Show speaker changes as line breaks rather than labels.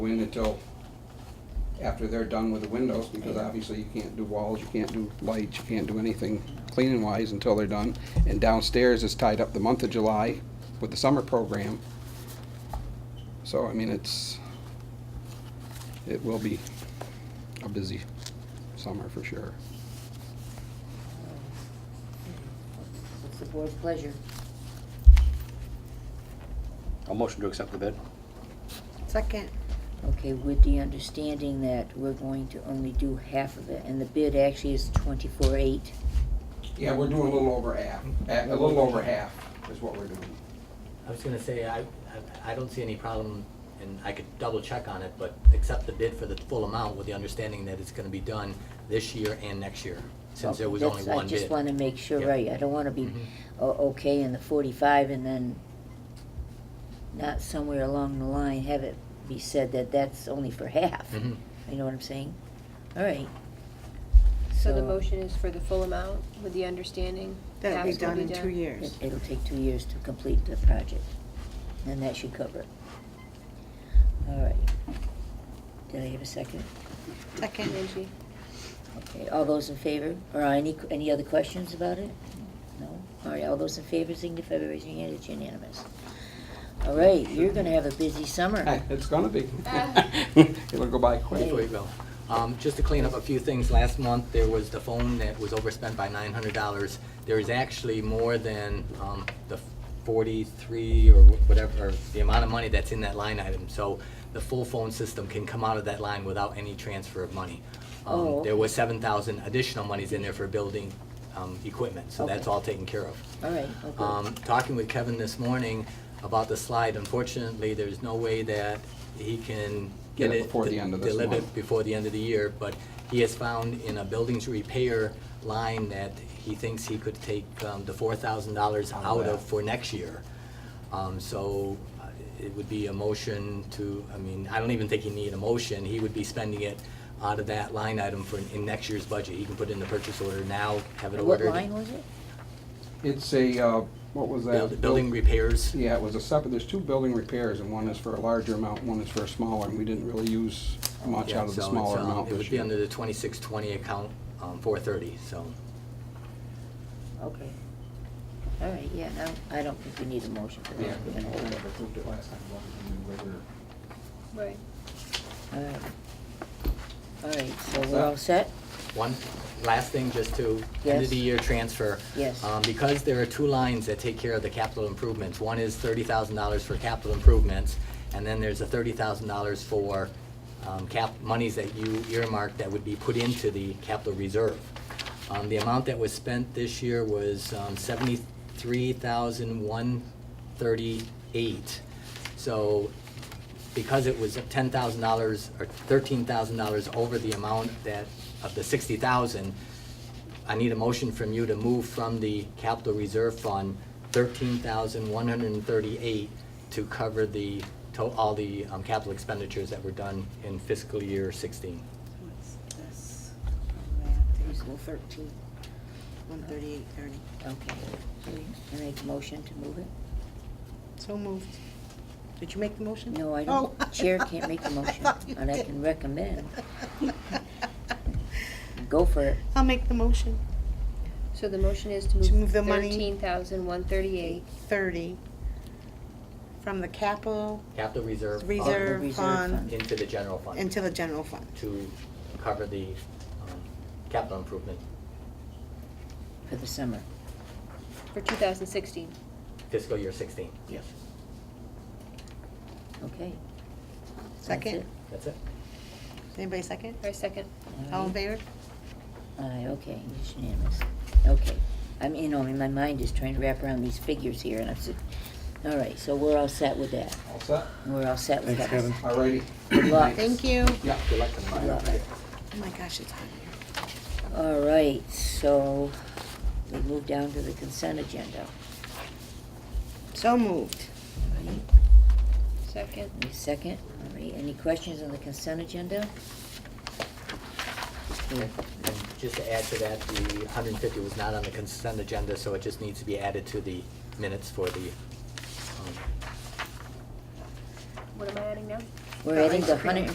in until after they're done with the windows, because obviously you can't do walls, you can't do lights, you can't do anything cleaning wise until they're done. And downstairs is tied up the month of July with the summer program. So, I mean, it's, it will be a busy summer for sure.
What's the board's pleasure?
I'll motion to accept the bid.
Second.
Okay, with the understanding that we're going to only do half of it, and the bid actually is twenty-four eight.
Yeah, we're doing a little over half, a a little over half is what we're doing.
I was gonna say, I, I- I don't see any problem, and I could double check on it, but accept the bid for the full amount with the understanding that it's gonna be done this year and next year, since there was only one
I
bid.
Oh, just wanna make sure,
Yeah.
right, I don't wanna be,
Mhm.
o- okay in the forty-five and then not somewhere along the line have it be said that that's only for half.
Mhm.
You know what I'm saying? All right.
So the
So-
motion is for the full amount with the understanding?
That'll be
halves will
done in two years.
It- It'll take two years to complete the project, and that should cover it. All right. Did I have a second?
Second, Angie.
Okay, all those in favor, or any, any other questions about it? No? All right, all those in favor, signify by raising your hand, it's unanimous. All right, you're gonna have a busy summer.
Hey, It's gonna be. It'll go by quick.
Before you go, um, just to clean up a few things, last month, there was the phone that was overspent by nine hundred dollars. There is actually more than, um, the forty-three or wh- whatever, or the amount of money that's in that line item. So the full phone system can come out of that line without any transfer of money.
Oh,
Um, there
okay.
was seven thousand additional monies in there for building, um, equipment, so that's
Okay.
all taken care of.
All right, okay.
Um, talking with Kevin this morning about the slide, unfortunately, there's no way that he can
Get
get
it
it.
before the end of this
delivered
month.
before the end of the year, but he has found in a buildings repair line that he thinks he could take, um, the four thousand dollars out of for next year. Um, so uh, it would be a motion to, I mean, I don't even think he need a motion, he would be spending it out of that line item for, in next year's budget. He can put it in the purchase order now, have it
What
ordered.
line was it?
It's a, uh, what was that?
Build- Building repairs.
Yeah, it was a separate, there's two building repairs, and one is for a larger amount, and one is for a smaller, and we didn't really use much
Yeah,
out of the
so it's,
smaller
um,
amount
It would
this
be
year.
under the twenty-six twenty account, um, four thirty, so.
Okay. All right, yeah, no, I don't think we need a motion for
Yeah,
that.
but
We're
we
gonna hold it.
approved it last time, it wasn't in the regular-
Right.
All right. All right, so
What's
we're
that?
all set?
One, last thing, just to, end of the
Yes.
year transfer.
Yes.
Um, because there are two lines that take care of the capital improvements. One is thirty thousand dollars for capital improvements, and then there's a thirty thousand dollars for, um, cap, monies that you earmarked that would be put into the capital reserve. Um, the amount that was spent this year was, um, seventy-three thousand one thirty-eight. So because it was ten thousand dollars or thirteen thousand dollars over the amount that, of the sixty thousand, I need a motion from you to move from the capital reserve fund thirteen thousand one hundred and thirty-eight to cover the, to, all the, um, capital expenditures that were done in fiscal year sixteen.
Equal
Equal thirteen, one thirty-eight thirty.
Okay. I make a motion to move it?
So moved. Did you make the motion?
No, I don't.
Oh.
Chair can't make the motion,
thought you
and I
did.
can recommend. Go for it.
I'll make the motion,
So the motion is to
To
move
move the money-
thirteen thousand one thirty-eight.
thirty, from the capital
Capital reserve fund
Reserve.
reserve fund
fund.
into the general fund.
into the general fund.
To cover the, um, capital improvement
For the summer.
for two thousand sixteen.
fiscal year sixteen. Yes.
Okay. That's
Second,
it.
That's it?
anybody second?
Our second.
All in
Alright.
favor?
Aye, okay, it's unanimous. Okay. I'm, you know, my mind is trying to wrap around these figures here, and I'm sitting, all right, so we're all set with that.
All set?
We're all set with that.
Thanks, Kevin.
All righty.
Good luck.
Thank you.
Yeah, good luck tonight.
Love it.
Oh my gosh, it's hot in here.
All right, so we move down to the consent agenda.
So moved.
All right.
Second.
Any second? All right, any questions on the consent agenda?
And just to add to that, the 150 was not on the consent agenda, so it just needs to be added to the minutes for the, um,
What am I adding now?
We're adding the
ice cream.
hundred